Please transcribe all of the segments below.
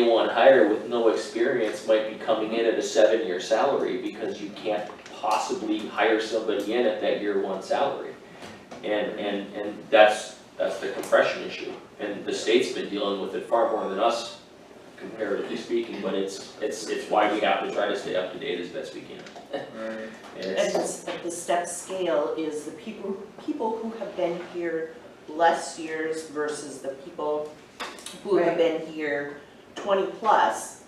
Anyone hired with no experience might be coming in at a seven-year salary because you can't possibly hire somebody in at that year one salary. And, and, and that's, that's the compression issue. And the state's been dealing with it far more than us comparatively speaking, but it's, it's, it's why we have to try to stay up to date as best we can. And And it's, it's, but the step scale is the people, people who have been here less years versus the people who have Right. been here twenty plus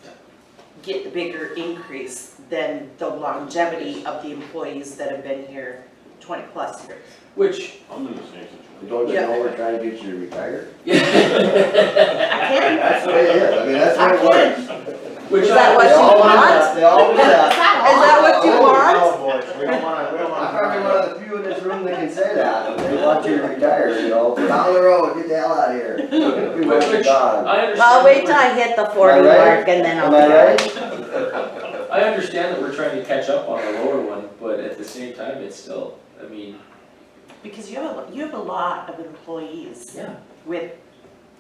get the bigger increase than the longevity of the employees that have been here twenty plus years. which. I'm in the same situation. Don't you know we're trying to get you to retire? I can, That's the way it is, I mean, that's I what it works. can. Which Is that They what you always want? have- They always have. Is that what you Oh, want? no, boys, we don't wanna, we don't wanna. I'm probably one of the few in this room that can say that, they want you to retire, you know, down the road, get the hell out of here. You Which- wish you gone. I understand. Well, wait till that I hit the forty oh. Am I right? mark and then I'll. Am I right? we're- I understand that we're trying to catch up on the lower one, but at the same time, it's still, I mean, Because you have, a you have a lot of employees yeah. with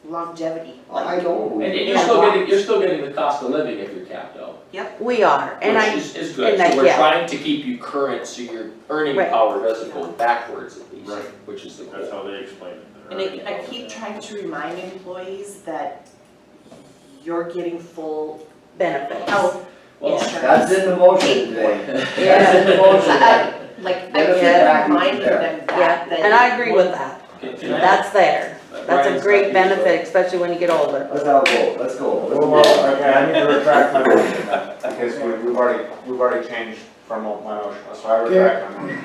longevity. Oh, I And know, you're still getting, you're still getting the cost of living if you're capped out, We are, which and I, is, is good, and I- so we're yeah. trying to keep you current, so your earning Right. power doesn't go backwards at least, Right. which is the goal. That's how they explain it. And I, I keep trying to remind employees that you're getting full benefits. health Well, insurance. that's in the motion today, that's in Yeah, the motion. I- Like, I Benefit keep package reminding there. them yeah, that, that. and I agree with that, okay, can I- that's there, that's Brian's a not great here, benefit, especially when you get older. Let's have a vote, let's go. Let's Well, move on. well, okay, I need to retract my motion then, because we- we've already, we've already changed from my motion, so I retract my motion.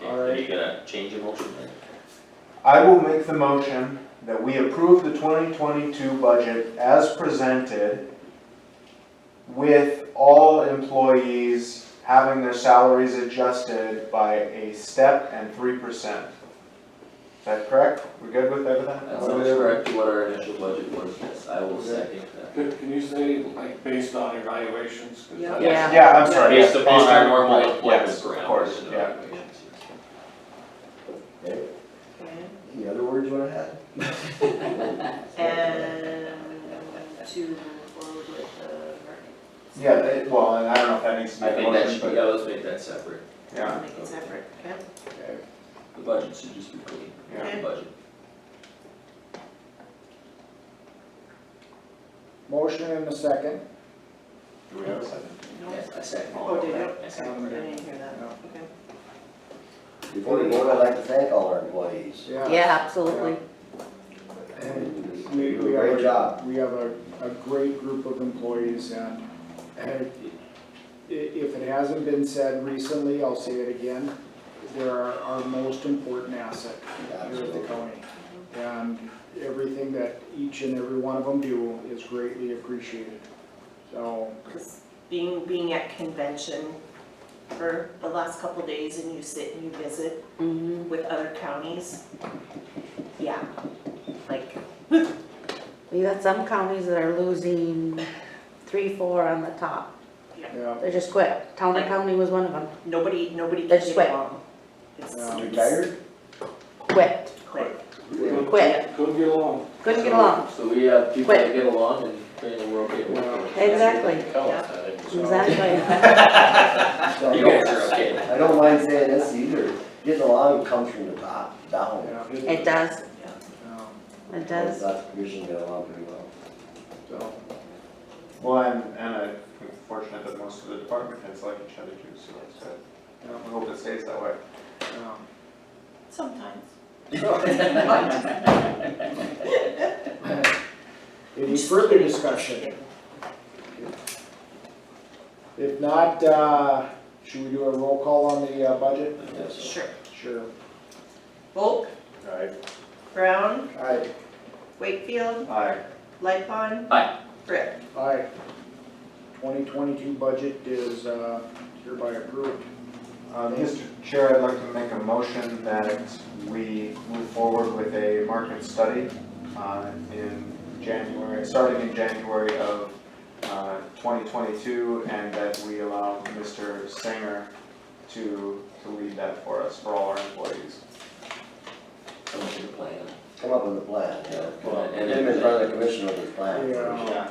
so- Okay, are you gonna change your motion then? I will make the motion that we approve the twenty twenty-two budget as presented with all employees having their salaries adjusted by a step and three percent. Is that correct? We're good with everything? That sounds correct to what our initial budget was, yes, I will second that. Can can you say, like, based on evaluations? 'Cause that- Yeah. Yeah, I'm sorry. Based upon our Yes, normal employment yes, parameters. Of course, and yeah. evaluations, yes. Any other words you wanna add? Uh, And to forward with the, Yeah, it- well, and I don't know if that needs to be I a think that motion, should, but. yeah, let's make that separate, Yeah, make it separate, okay? Okay. the budget should just be clean, yeah. the budget. Motion and a second. Do we have a second? Yes, I second. Oh, did you? I second. I didn't hear that, okay. Before we vote, I'd like to thank all our employees. Yeah, absolutely, And You we, do a we have, Great a- job. we have a, a great group of employees and, and i- if it hasn't been said recently, I'll say it again, they're our, our most important asset here at the Absolutely. county. And everything that each and every one of them do is greatly appreciated. So, Because being, being at convention for the last couple days and you sit and you visit hmm with other counties, yeah, like, you got some counties that are losing three, four on the top, yeah, they just quit, Towner County was one of them, nobody, nobody can That's get right. along. It's Yeah. Retired? quit, quick. Couldn't- Quit. Couldn't get along. couldn't get along, So we have people that Quit. get along and train the world get along. Exactly. Yeah. exactly, So, You guys are okay. I don't mind saying this either, getting along comes from the top, down. yeah, it does, um, it Lots does. of commission get along pretty well. so, Well, and, and I'm fortunate that most of the department heads like each other too, so that's good. Yeah. I hope it stays that way. um, Sometimes. Any further discussion? If not, uh, should we do a roll call on the uh, budget? Yes. Sure. Sure. Volk, Aye. Brown, Alright, Wakefield, Aye. Lightfon. Aye. Brick. Aye. Twenty twenty-two budget is uh, hereby approved. Uh, Mr. Chair, I'd like to make a motion that we move forward with a market study uh, in January, starting in January of uh, 2022, and that we allow Mr. Singer to, to lead that for us, for all our employees. Come up with a plan. come up with a plan, yeah. Well, and Him in front of the commission with his plan. Yeah. Yeah,